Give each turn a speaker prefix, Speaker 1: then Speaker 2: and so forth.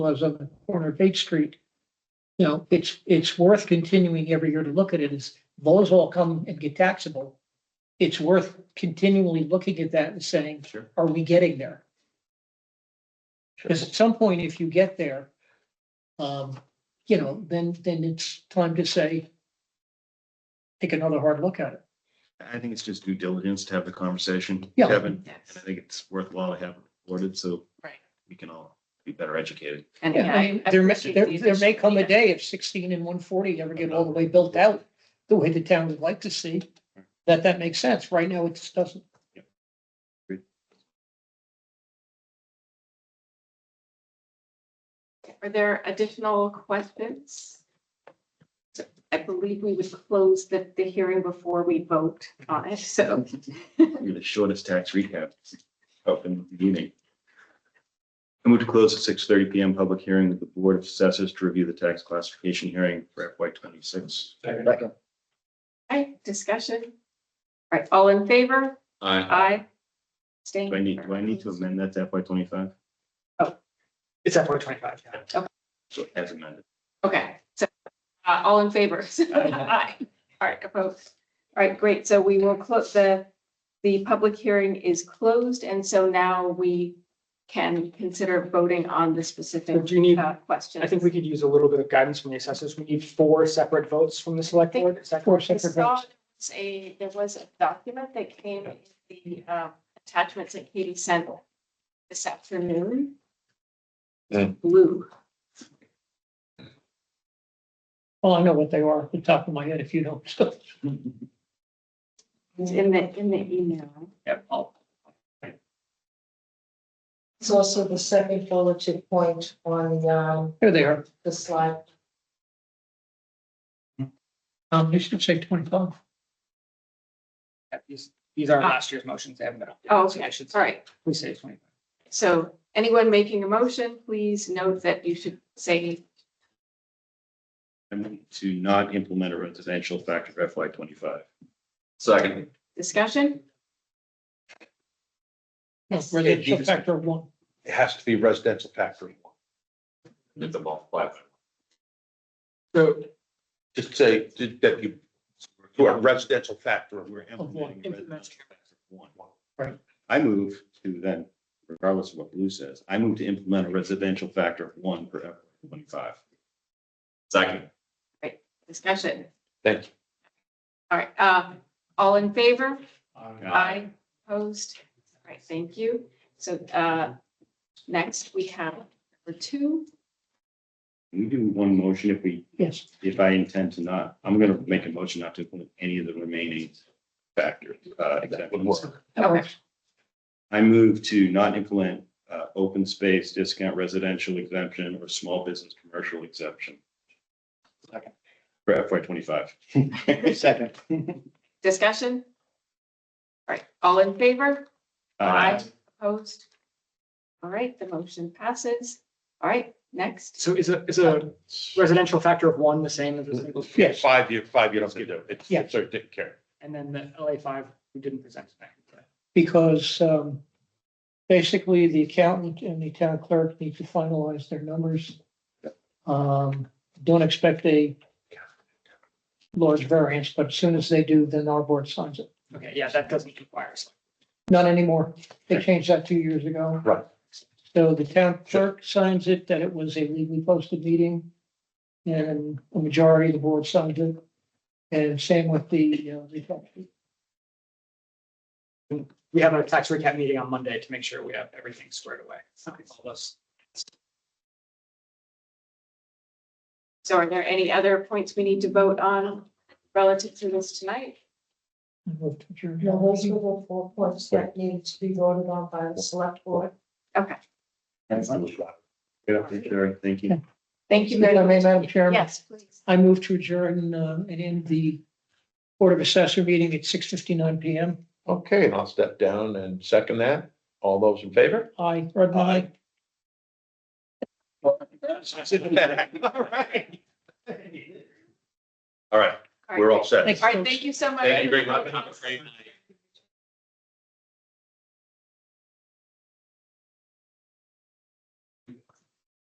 Speaker 1: was on the corner of Eighth Street. You know, it's, it's worth continuing every year to look at it, as those all come and get taxable. It's worth continually looking at that and saying,
Speaker 2: Sure.
Speaker 1: are we getting there? Because at some point, if you get there, um, you know, then, then it's time to say, take another hard look at it.
Speaker 2: I think it's just due diligence to have the conversation,
Speaker 1: Yeah.
Speaker 2: Kevin, and I
Speaker 3: Yes,
Speaker 2: think it's worthwhile to have it recorded, so.
Speaker 3: Right.
Speaker 2: We can all be better educated.
Speaker 3: and
Speaker 1: Yeah,
Speaker 3: yeah, I. I
Speaker 1: There, may-
Speaker 3: appreciate
Speaker 1: there,
Speaker 3: the
Speaker 1: there may
Speaker 3: additional
Speaker 1: come a
Speaker 3: data.
Speaker 1: day if sixteen and one forty ever get all the way built out, the way the town would like to see, that that makes sense. Right now, it just doesn't.
Speaker 3: Are there additional questions? So I believe we would close the, the hearing before we vote on it, so.
Speaker 2: You're the shortest tax recap up in the evening. I move to close at six thirty P M. public hearing with the Board of Assessors to review the tax classification hearing for FY twenty-six.
Speaker 3: Okay, discussion? All right, all in favor?
Speaker 2: I,
Speaker 3: Aye. Staying.
Speaker 2: do I need, do I need to amend that to FY twenty-five?
Speaker 4: It's at four twenty-five, yeah.
Speaker 2: So as amended.
Speaker 3: Okay, so, uh, all in favor? Aye. All right, opposed. All right, great. So we will close the, the public hearing is closed, and so now we can consider voting on the
Speaker 4: So
Speaker 3: specific
Speaker 4: do you need,
Speaker 3: uh, questions.
Speaker 4: I think we could use a little bit of guidance from the assessors. We need four separate votes from the select board. Is that
Speaker 1: Four
Speaker 4: correct?
Speaker 3: I
Speaker 1: separate
Speaker 3: saw
Speaker 1: votes.
Speaker 3: there was a, there was a document that came in the um, attachments that Katie sent this afternoon.
Speaker 2: Hmm.
Speaker 3: Blue.
Speaker 1: Well, I know what they are, off the top of my head, if you don't, so.
Speaker 3: It's in the, in the email.
Speaker 5: It's also the second bulleted point on um,
Speaker 1: There they are.
Speaker 5: the slide.
Speaker 1: Um, they should say twenty-five.
Speaker 4: Yeah, These, these are last year's motions. They haven't been updated.
Speaker 3: Oh,
Speaker 4: so they
Speaker 3: okay.
Speaker 4: should-
Speaker 3: All right.
Speaker 4: Please say twenty-five.
Speaker 3: So anyone making a motion, please note that you should say,
Speaker 2: I move to not implement a residential factor for FY twenty-five. Second.
Speaker 3: discussion? Yes.
Speaker 1: Residential factor of one.
Speaker 6: it has to be residential factory.
Speaker 2: Hit the ball flat.
Speaker 4: So
Speaker 6: Just say that you, you are residential factory.
Speaker 2: We're
Speaker 1: Of one.
Speaker 2: implementing. a residential tax of one.
Speaker 1: Right.
Speaker 2: I move to then, regardless of what Blue says, I move to implement a residential factor of one for F twenty-five. Second.
Speaker 3: Discussion.
Speaker 6: Thank you.
Speaker 3: All right, uh, all in favor?
Speaker 2: Aye.
Speaker 3: Opposed? All right, thank you. So, uh, next we have number two.
Speaker 2: Can we do one motion if we,
Speaker 1: Yes,
Speaker 2: if I intend to not, I'm gonna make a motion not to implement any of the remaining factors. uh,
Speaker 6: That would work.
Speaker 1: that
Speaker 3: Okay.
Speaker 1: works.
Speaker 2: I move to not implement, uh, open space discount residential exemption or small business commercial exemption.
Speaker 4: Second.
Speaker 2: For FY twenty-five.
Speaker 4: second.
Speaker 3: Discussion? All right, all in favor? Opposed? All right, the motion passes. All right, next.
Speaker 4: So is a, is a residential factor of one the same as a single?
Speaker 6: Mm-hmm.
Speaker 1: Yes,
Speaker 6: Five year, five year, don't get it. It's,
Speaker 1: Yeah.
Speaker 6: it's already taken care of.
Speaker 4: And then the LA five, we didn't present tonight.
Speaker 1: because, um, basically the accountant and the town clerk need to finalize their numbers. Um, don't expect a large variance, but as soon as they do, then our board signs it.
Speaker 4: Okay, yeah, that doesn't require. us.
Speaker 1: Not anymore. They changed that two years ago.
Speaker 6: Right.
Speaker 1: So the town clerk signs it that it was a legally posted meeting. And a majority of the board signed it. And same with the, uh, the-
Speaker 4: We have a tax recap meeting on Monday to make sure we have everything squared away. All those-
Speaker 3: So are there any other points we need to vote on relative to this tonight?
Speaker 5: Now, those were the four points that needed to be voted on by the select board.
Speaker 3: Okay,
Speaker 2: Yeah, thank you, Eric. Thank you.
Speaker 3: thank you very
Speaker 1: If I may,
Speaker 3: much.
Speaker 1: Madam Chairman.
Speaker 3: Yes, please.
Speaker 1: I move to adjourn, uh, and end the Board of Assessor meeting at six fifty-nine PM.
Speaker 6: Okay, and I'll step down and second that. All those in favor?
Speaker 1: Aye, Rudman, aye.
Speaker 6: All right. All right,
Speaker 3: All right,
Speaker 6: we're all set.
Speaker 1: Thank
Speaker 3: All right, thank you so much.
Speaker 6: Thank you very much. Have a great night.